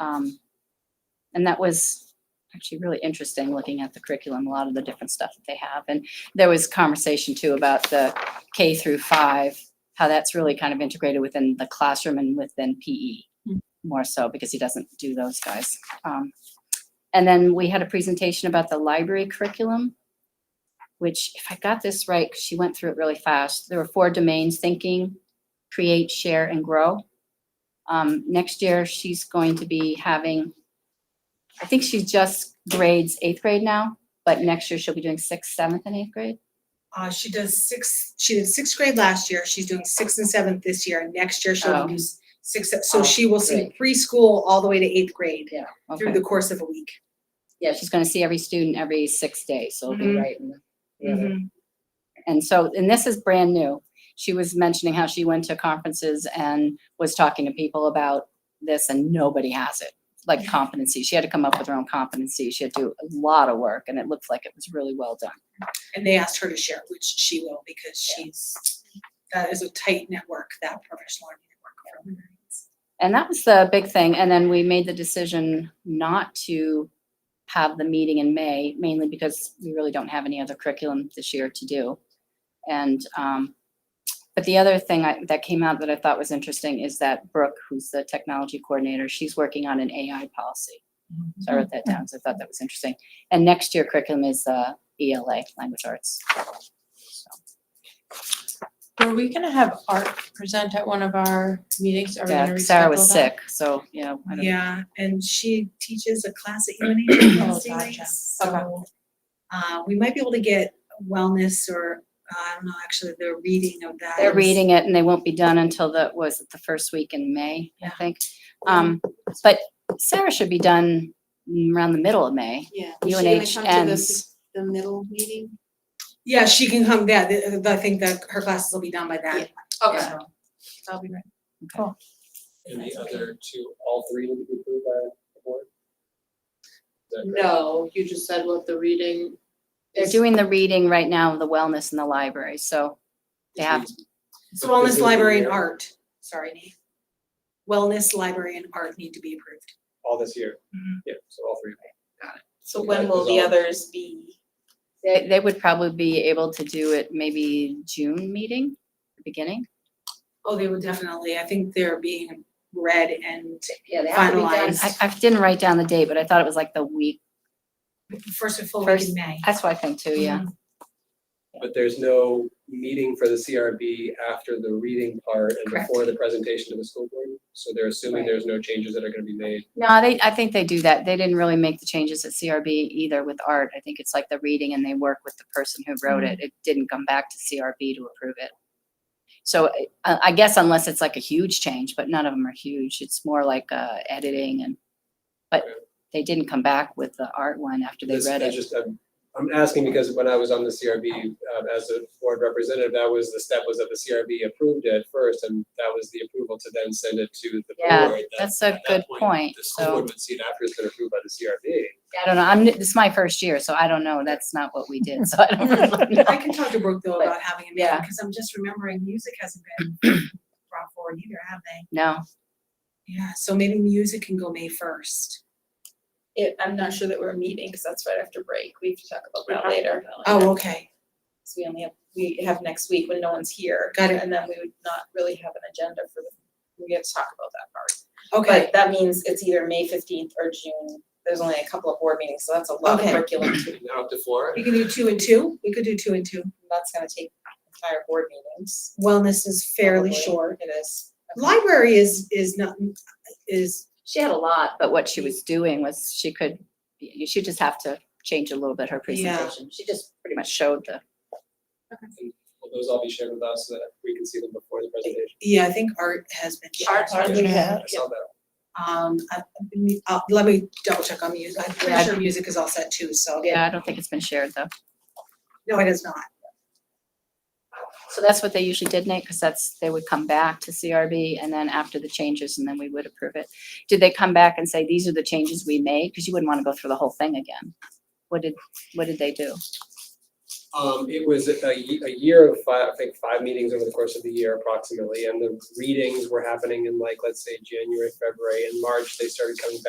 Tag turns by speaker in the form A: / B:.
A: Um, and that was actually really interesting, looking at the curriculum, a lot of the different stuff that they have. And there was conversation too about the K through five, how that's really kind of integrated within the classroom and within PE
B: Mm.
A: more so because he doesn't do those guys. Um, and then we had a presentation about the library curriculum, which if I got this right, 'cause she went through it really fast. There were four domains, thinking, create, share, and grow. Um, next year, she's going to be having, I think she just grades eighth grade now, but next year she'll be doing sixth, seventh, and eighth grade.
B: Uh, she does six, she did sixth grade last year, she's doing sixth and seventh this year, and next year she'll
A: Oh.
B: do s- sixth, so
A: Oh,
B: she will see preschool all the way to eighth grade through
A: Okay.
B: the course of a week.
A: Yeah, she's gonna see every student every six days, so it'll be
B: Mhm.
A: right. in the- the other-
B: Mm-hmm.
A: And so, and this is brand new. She was mentioning how she went to conferences and was talking to people about this and nobody has it. Like competency. She had to come up with her own competency. She had to do a lot of work and it looked like it was really well done.
B: And they asked her to share, which she will, because she's, that is a tight network, that professional learning network. from her.
A: And that was the big thing. And then we made the decision not to have the meeting in May, mainly because we really don't have any other curriculum this year to do. And, um, but the other thing I, that came out that I thought was interesting is that Brooke, who's the technology coordinator, she's working on an AI policy. So I wrote that down, so I thought that was interesting. And next year curriculum is, uh, ELA, language arts. So,
C: Were we gonna have art present at one of our meetings? Are we
A: Yeah,
C: gonna
A: Sarah was
C: reschedule that?
A: sick, so, you know, I don't
B: Yeah, and she teaches a class at UNH
C: Oh,
B: on Wednesday
C: gotcha.
B: nights, so. Uh, we might be able to get wellness or, uh, I don't know, actually, the reading of that.
A: They're
B: is-
A: reading it and they won't be done until the, was it the first week in May, I
B: Yeah.
A: think? Um, but Sarah should be done mm, around the middle of May.
D: Yeah. is she gonna
A: UNH
D: come to the
A: ends,
D: The middle meeting?
B: Yeah, she can come, yeah, th- th- I think that her classes will be done by then.
C: Okay,
B: So,
C: that'll be great.
E: And the other two, all three need to be approved by the board? Is that correct?
D: No, Oh, you just said what the reading.
A: they're
D: is-
A: doing the reading right now of the wellness in the library, so they
E: Which
A: have,
E: means-
B: So wellness,
E: Because
B: library and
E: they're-
B: art, sorry, Nate. Wellness, library and art need to be approved.
E: All this year,
B: Mhm.
E: yeah, so all three.
F: So
E: Yeah,
F: when will
E: because
F: the
E: all-
F: others be?
A: they, they would probably be able to do it maybe June meeting, beginning.
B: Oh, they will definitely, I think they're being read and
A: Yeah,
B: they have to be done.
A: I, I didn't write down the date, but I thought it was like the week,
B: first and full week
A: First-
B: in May.
A: that's what I think too, yeah.
E: But there's no meeting for the CRB after the reading part and
A: Correct.
E: before the presentation to the school board? So they're assuming
A: Right.
E: there's no changes that are gonna be made.
A: No, they, I think they do that. They didn't really make the changes at CRB either with art. I think it's like the reading and they work with the person who wrote
E: Mm-hmm.
A: it. It didn't come back to CRB to approve it. So I- I, I guess unless it's like a huge change, but none of them are huge. It's more like, uh, editing and, but
E: Okay.
A: they didn't come back with the art one after they
E: This-
A: read
E: I
A: it.
E: just, I'm, I'm asking because when I was on the CRB, um, as a board representative, that was, the step was that the CRB approved it first, and that was the approval to then send it to the
A: Yeah,
E: board. That-
A: That's a
E: at that
A: good point.
E: The school
A: So,
E: board would see it after it's been approved by the CRB.
A: I don't know. I'm, this is my first year, so I don't know. That's not what we did. So I don't really know.
B: I can talk to Brooke though
A: But-
B: about having a meeting,
A: yeah.
B: because I'm just remembering music hasn't been brought forward either, have they?
A: No,
B: Yeah, so maybe music can go May first.
F: It, I'm not sure that we're meeting, because that's right after break. We have to talk about that later.
B: Oh, okay,
F: Because we only have, we have next week when no one's here.
B: Got it.
F: And then we would not really have an agenda for the, we have to talk about that part.
B: okay,
F: But that means it's either May fifteenth or June. There's only a couple of board meetings, so that's a lot of
B: Okay.
F: curriculum. to-
E: Now up to Flora.
B: we can do two and two, we could do two and two.
F: That's gonna take entire board meetings.
B: Wellness is fairly
F: probably.
B: short.
F: It is.
B: Library is, is not, is,
A: She had a lot, but what she was doing was she could, you should just have to change a little bit her
B: Yeah.
A: presentation. She just pretty much showed the,
E: Will those all be shared with us so that we can see them before the presentation?
B: yeah, I think art has been shared.
F: Art's Art
E: Yeah,
F: been
E: I saw that.
B: Um, I, uh, let me double check on music, I'm pretty
A: Yeah.
B: sure music is all set too, so.
A: yeah, I don't think it's been shared though.
B: No, it is not.
A: So that's what they usually did, Nate, because that's, they would come back to CRB and then after the changes and then we would approve it. Did they come back and say, these are the changes we made? Because you wouldn't want to go through the whole thing again. What did, what did they do?
E: Um, it was a, ye- a year of five, I think, five meetings over the course of the year approximately, and the readings were happening in like, let's say, January, February, and March, they started coming back